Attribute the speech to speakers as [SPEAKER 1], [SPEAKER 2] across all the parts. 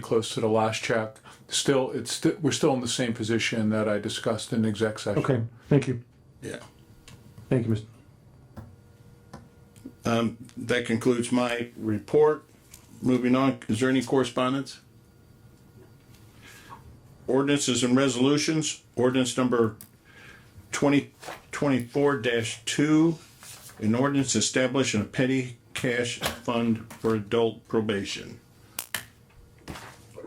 [SPEAKER 1] close to the last check. Still, it's, st- we're still in the same position that I discussed in exec session.
[SPEAKER 2] Okay, thank you.
[SPEAKER 3] Yeah.
[SPEAKER 2] Thank you, Mr.
[SPEAKER 3] That concludes my report. Moving on, is there any correspondence? Ordinances and resolutions, ordinance number twenty twenty-four two. An ordinance establishing a petty cash fund for adult probation.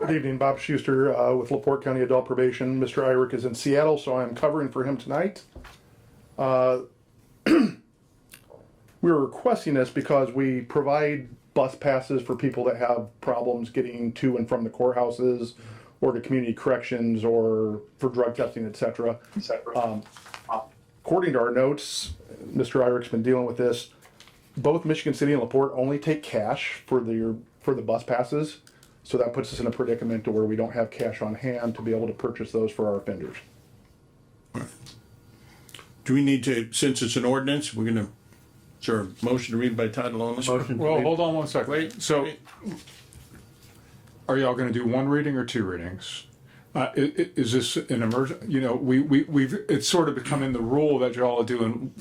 [SPEAKER 4] Good evening, Bob Schuster uh, with LaPorte County Adult Probation. Mr. Irick is in Seattle, so I'm covering for him tonight. Uh, We were requesting this because we provide bus passes for people that have problems getting to and from the courthouses or to community corrections or for drug testing, et cetera. Um, According to our notes, Mr. Irick's been dealing with this, both Michigan City and LaPorte only take cash for their, for the bus passes. So that puts us in a predicament to where we don't have cash on hand to be able to purchase those for our offenders.
[SPEAKER 3] Do we need to, since it's an ordinance, we're gonna, is there a motion to read by title only? Motion.
[SPEAKER 1] Well, hold on one second.
[SPEAKER 3] Wait,
[SPEAKER 1] So
[SPEAKER 3] wait.
[SPEAKER 1] are y'all gonna do one reading or two readings? Uh, i- i- is this an emerg, you know, we, we, we've, it's sort of becoming the rule that y'all are doing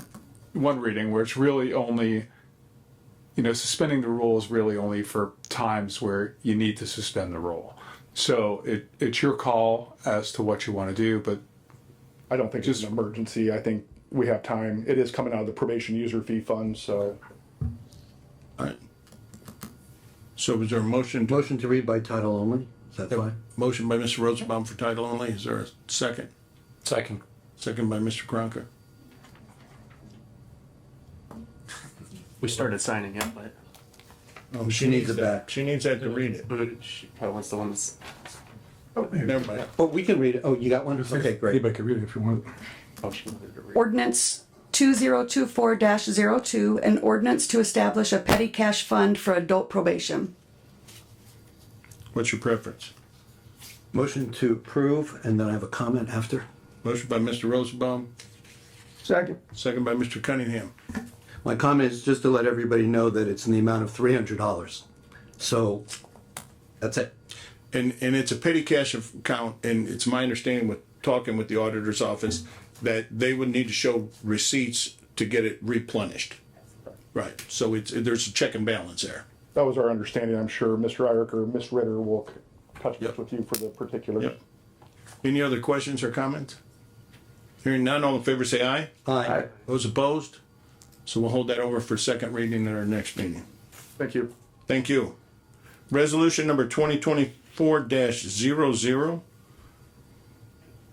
[SPEAKER 1] one reading where it's really only, you know, suspending the rule is really only for times where you need to suspend the rule. So it, it's your call as to what you wanna do, but
[SPEAKER 4] I don't think it's an emergency. I think we have time. It is coming out of the probation user fee fund, so
[SPEAKER 3] Alright. So is there a motion to,
[SPEAKER 5] Motion to read by title only, is that fine?
[SPEAKER 3] motion by Mr. Rosenbaum for title only? Is there a second?
[SPEAKER 6] Second.
[SPEAKER 3] Second by Mr. Kronka.
[SPEAKER 6] We started signing up, but
[SPEAKER 3] Oh,
[SPEAKER 5] She needs it back.
[SPEAKER 3] She needs that to read it.
[SPEAKER 6] she probably wants the one that's.
[SPEAKER 3] Never mind.
[SPEAKER 5] Oh, we can read it, oh, you got one? Okay, great.
[SPEAKER 2] Anybody could read it if you want.
[SPEAKER 6] Oh, she wanted to read.
[SPEAKER 7] Ordinance 2024-02, an ordinance to establish a petty cash fund for adult probation.
[SPEAKER 3] What's your preference?
[SPEAKER 5] Motion to approve, and then I have a comment after.
[SPEAKER 3] Motion by Mr. Rosenbaum,
[SPEAKER 4] Second.
[SPEAKER 3] second by Mr. Cunningham.
[SPEAKER 5] My comment is just to let everybody know that it's in the amount of three hundred dollars. So, that's it.
[SPEAKER 3] And, and it's a petty cash account, and it's my understanding with talking with the auditor's office that they would need to show receipts to get it replenished. Right, so it's, there's a check and balance there.
[SPEAKER 4] that was our understanding. I'm sure Mr. Irick or Ms. Ritter will c- touch base
[SPEAKER 3] Yep.
[SPEAKER 4] with you for the particulars.
[SPEAKER 3] Yep. Any other questions or comments? Hearing none, all in favor say aye.
[SPEAKER 5] Aye.
[SPEAKER 3] Those opposed? So we'll hold that over for second reading at our next meeting.
[SPEAKER 4] Thank you.
[SPEAKER 3] Thank you. Resolution number twenty twenty-four 0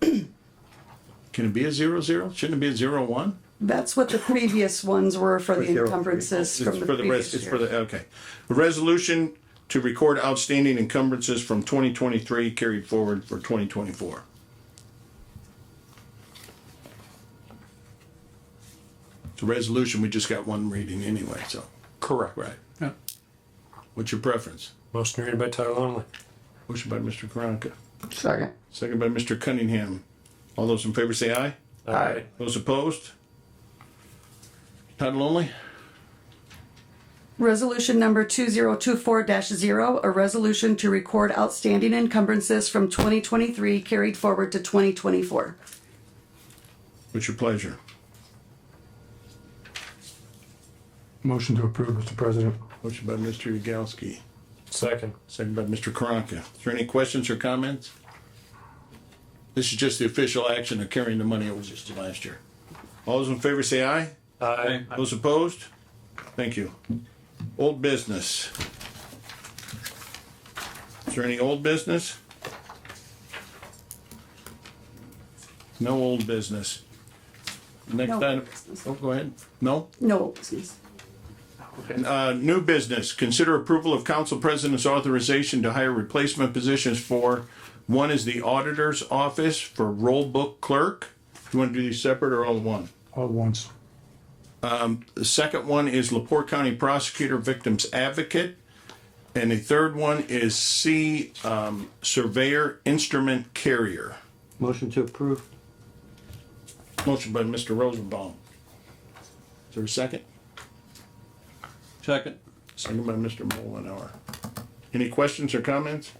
[SPEAKER 3] Can it be a zero zero? Shouldn't it be a zero one?
[SPEAKER 7] That's what the previous ones were for the
[SPEAKER 5] zero three.
[SPEAKER 7] encumbrances
[SPEAKER 3] It's
[SPEAKER 7] from the
[SPEAKER 3] for the rest,
[SPEAKER 7] previous
[SPEAKER 3] it's for
[SPEAKER 7] year.
[SPEAKER 3] the, okay. A Resolution to record outstanding encumbrances from twenty twenty-three carried forward for twenty twenty-four. It's a resolution, we just got one reading anyway, so,
[SPEAKER 1] correct.
[SPEAKER 3] right.
[SPEAKER 1] Yeah.
[SPEAKER 3] What's your preference?
[SPEAKER 6] Motion to read by title only.
[SPEAKER 3] Motion by Mr. Karanka,
[SPEAKER 7] Second.
[SPEAKER 3] second by Mr. Cunningham. All those in favor say aye.
[SPEAKER 6] Aye.
[SPEAKER 3] Those opposed? Title only?
[SPEAKER 7] Resolution number 2024-0, a resolution to record outstanding encumbrances from 2023 carried forward to 2024.
[SPEAKER 3] What's your pleasure?
[SPEAKER 2] Motion to approve, Mr. President.
[SPEAKER 3] Motion by Mr. Yagowski,
[SPEAKER 6] Second.
[SPEAKER 3] second by Mr. Karanka. Is there any questions or comments? This is just the official action of carrying the money over just last year. All those in favor say aye.
[SPEAKER 6] Aye.
[SPEAKER 3] Those opposed? Thank you. Old business. Is there any old business? No old business. Next
[SPEAKER 7] No
[SPEAKER 3] item,
[SPEAKER 7] business.
[SPEAKER 3] oh, go ahead. No?
[SPEAKER 7] No, excuse.
[SPEAKER 3] Uh, new business, consider approval of council president's authorization to hire replacement positions for, one is the auditor's office for roll book clerk. You want to do these separate or all in one?
[SPEAKER 2] All at once.
[SPEAKER 3] The second one is Laporte County Prosecutor Victims Advocate. And the third one is C, um, Surveyor Instrument Carrier.
[SPEAKER 5] Motion to approve.
[SPEAKER 3] Motion by Mr. Rosenbaum. Is there a second? Second. Second by Mr. Mullenhour. Any questions or comments?